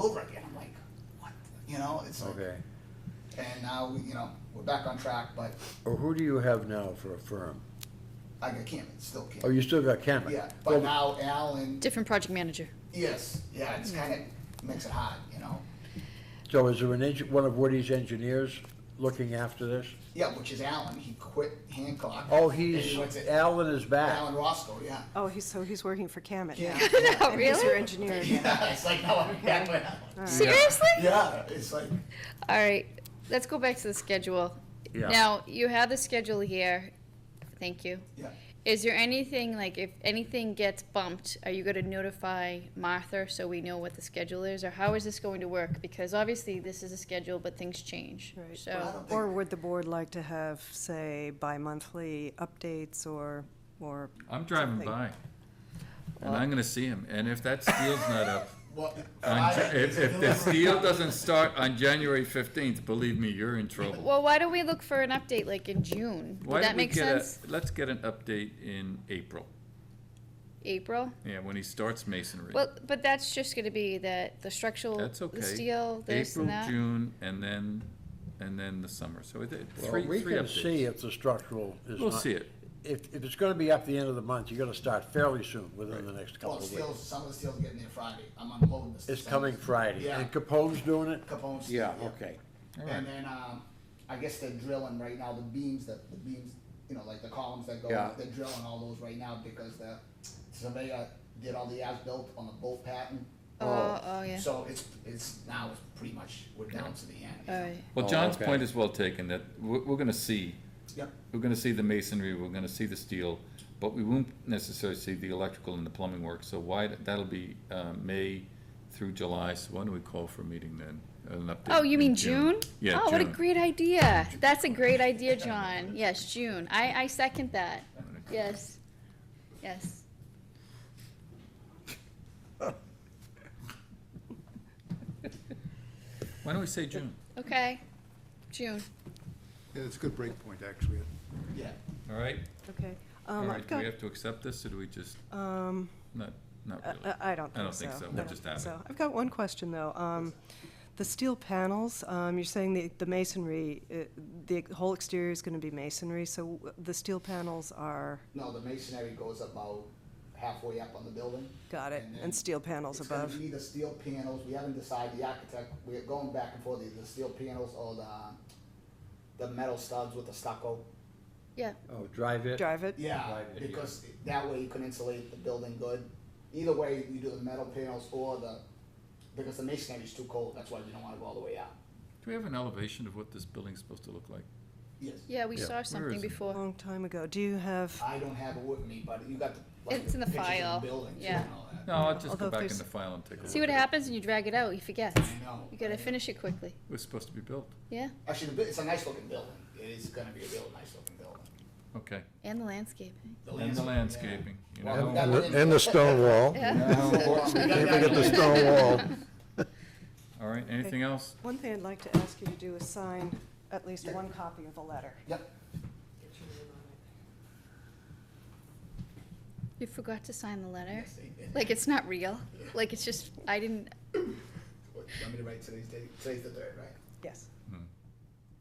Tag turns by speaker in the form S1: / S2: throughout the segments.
S1: over again. I'm like, what? You know, it's like,
S2: Okay.
S1: and now, you know, we're back on track, but
S2: Or who do you have now for a firm?
S1: I got Cameron, still
S2: Oh,
S1: Cameron.
S2: you still got Cameron?
S1: Yeah,
S2: Well,
S1: but now Alan,
S3: Different project manager.
S1: yes, yeah, it's kind of makes it hard, you know?
S2: So is there an engin, one of Woody's engineers looking after this?
S1: Yeah, which is Alan, he quit Hancock.
S2: Oh,
S1: and
S2: he's,
S1: he went to
S2: Alan is
S1: Alan
S2: back.
S1: Roscoe, yeah.
S4: Oh, he's, so he's working for Camet now.
S1: Yeah, yeah.
S3: Oh,
S4: And he's your
S3: really?
S4: engineer again.
S1: Yeah, it's like, now I'm back with Alan.
S3: Seriously?
S1: Yeah, it's like,
S3: All right, let's go back to the schedule.
S2: Yeah.
S3: Now, you have the schedule here. Thank you.
S1: yeah.
S3: Is there anything, like, if anything gets bumped, are you gonna notify Martha so we know what the schedule is? Or how is this going to work? Because obviously, this is a schedule, but things change,
S4: Right.
S1: Well, I
S3: so.
S1: don't
S4: Or
S1: think-
S4: would the board like to have, say, bi-monthly updates or, or?
S5: I'm driving
S4: something?
S5: by, and I'm gonna see him, and if that steel's not up,
S1: Well,
S5: on Ja-
S1: I-
S5: if, if the steel doesn't start on January fifteenth, believe me, you're in trouble.
S3: Well, why don't we look for an update, like, in June?
S5: Why
S3: Would that
S5: don't we
S3: make
S5: get a-
S3: sense?
S5: Let's get an update in April,
S3: April?
S5: yeah, when he starts masonry.
S3: Well, but that's just gonna be that, the structural,
S5: That's okay.
S3: the steel, this
S5: April,
S3: and that.
S5: June, and then, and then the summer, so it, it-
S2: Well,
S5: three,
S2: We
S5: three
S2: can see
S5: updates.
S2: if the structural is not.
S5: We'll see it,
S2: If, if it's gonna be up the end of the month, you're gonna start fairly soon, within the next couple
S1: Well,
S2: of
S1: steel,
S2: weeks.
S1: Oh, some of the steel's getting there Friday, I'm unloading this.
S2: It's
S1: some-
S2: coming Friday.
S1: Yeah.
S2: And Capone's doing it?
S1: Capone's.
S2: Yeah, okay.
S1: And then, um, I guess they're drilling right now, the beams, that, the beams, you know, like the columns that go,
S2: Yeah.
S1: they're drilling all those right now because the surveyor did all the as-built on the bolt pattern.
S3: Oh, oh, yeah.
S1: So it's, it's, now it's pretty much, we're down to the end. you know?
S3: All right.
S5: well,
S2: Oh,
S5: John's
S2: okay.
S5: point is well taken, that we're, we're gonna see,
S1: Yep,
S5: we're gonna see the masonry, we're gonna see the steel, but we won't necessarily see the electrical and the plumbing work, so why, that'll be, uh, May through July, so why don't we call for a meeting then? an update
S3: Oh, you
S5: in
S3: mean June?
S5: Yeah, June.
S3: Oh, what a great idea. That's a great idea, John. Yes, June. I, I second that. Yes. Yes.
S5: Why don't we say June?
S3: Okay. June.
S6: Yeah, it's a good break point, actually.
S1: yeah.
S5: All right,
S4: Okay.
S5: all
S4: Um,
S5: right,
S4: I've
S5: do we
S4: got,
S5: have to accept this, or do we just,
S4: um, uh,
S5: not, not
S4: I,
S5: really?
S4: I- I don't
S5: I don't
S4: think so.
S5: think so.
S4: I
S5: We'll
S4: don't
S5: just
S4: think
S5: have it.
S4: so. I've got one question, though. Um, the steel panels, um, you're saying the, the masonry, uh, the whole exterior is gonna be masonry, so w- the steel panels are,
S1: No, the masonry goes about halfway up on the building.
S4: got it,
S1: then
S4: and steel panels
S1: It's gonna
S4: above.
S1: be the steel panels, we haven't decided, the architect, we're going back and forth, either the steel panels or the, the metal studs with the stucco.
S3: Yeah.
S2: Oh, drive it?
S4: Drive it?
S1: Yeah,
S2: Right, yeah.
S1: because that way you can insulate the building good. Either way, you do the metal panels or the, because the masonry is too cold, that's why you don't wanna go all the way out.
S5: Do we have an elevation of what this building's supposed to look like?
S1: Yes,
S3: Yeah, we
S2: Yeah.
S3: saw something
S5: is it?
S4: A
S3: before.
S4: long time ago. Do you have,
S1: I don't have it with me, but you got the, like,
S3: It's
S1: the
S3: in the
S1: pictures
S3: file,
S1: of the building too
S3: yeah.
S1: and all that.
S5: No, I'll just
S4: Although
S5: go
S4: if
S5: back in
S4: there's-
S5: the file and take a look.
S3: See what
S5: at it.
S3: happens when you drag it out. You forget.
S1: I know.
S3: You gotta
S1: I know.
S3: finish it quickly.
S5: It was supposed to be built,
S3: Yeah.
S1: Actually, the bu- it's a nice looking building, it is gonna be a real nice looking building.
S5: okay.
S3: And the landscaping.
S5: And the
S1: yeah.
S5: landscaping, you
S1: Well,
S5: know?
S1: that-
S6: And the- and the stone wall.
S3: Yeah.
S6: Can't forget the stone wall.
S5: All right, anything else?
S4: one thing I'd like to ask you to do is sign at least
S1: Yeah.
S4: one copy of the letter.
S1: Yep,
S3: You forgot to sign the letter.
S1: Yes, I did.
S3: Like, it's not real. Like, it's just, I didn't,
S1: What, you want me to write today's date? Today's the third, right?
S4: Yes.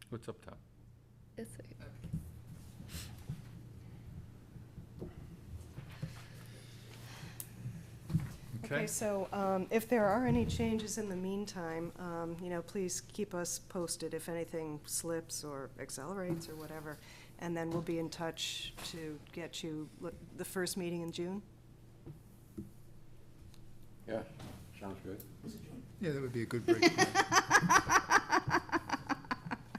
S5: What's up top?
S3: it's,
S4: Okay,
S5: Okay,
S4: so um, if there are any changes in the meantime, um, you know, please keep us posted if anything slips or accelerates or whatever. And then we'll be in touch to get you look, the first meeting in June.
S2: Yeah, sounds good.
S6: Yeah, that would be a good break point.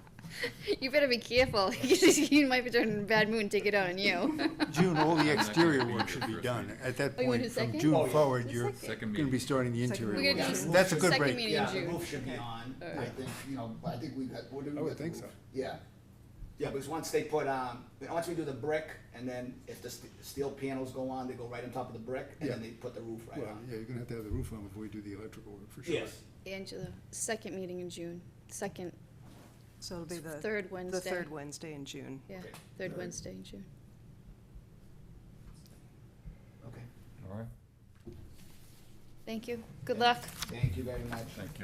S3: you better be careful. you might be turning a bad mood and take it out on you.
S6: June, all the
S5: Not
S6: exterior
S5: gonna be here
S6: work should be
S5: for a
S6: done. At that
S3: Oh, you want
S6: point,
S3: a
S6: from
S3: second?
S1: Oh,
S6: June
S1: yeah.
S6: forward, you're
S5: second
S6: gonna be
S5: meeting.
S6: starting the
S4: Second
S6: interior
S3: We're
S6: work.
S3: gonna do
S6: That's a good
S3: second
S6: break.
S3: meeting in
S1: Yeah, the
S3: June.
S1: roof should be on, I think, you know, I think we got, what do we
S6: I
S1: got?
S6: would
S1: the
S6: think
S1: roof?
S6: so.
S1: Yeah, yeah, because once they put, um, once we do the brick, and then if the st- steel panels go on, they go right on top of the brick, and then
S6: Yeah.
S1: they put the roof right
S6: Well,
S1: on.
S6: yeah, you're gonna have to have the roof on before you do the electrical work, for sure.
S1: Yes,
S3: Angela, second meeting in June, second,
S4: So it'll be the.
S3: third Wednesday.
S4: The third Wednesday in June.
S3: Yeah,
S1: Okay.
S3: third
S1: Alright.
S3: Wednesday in June.
S1: okay.
S5: All right.
S7: Thank you. Good luck.
S3: Thank you very much.
S1: Thank you.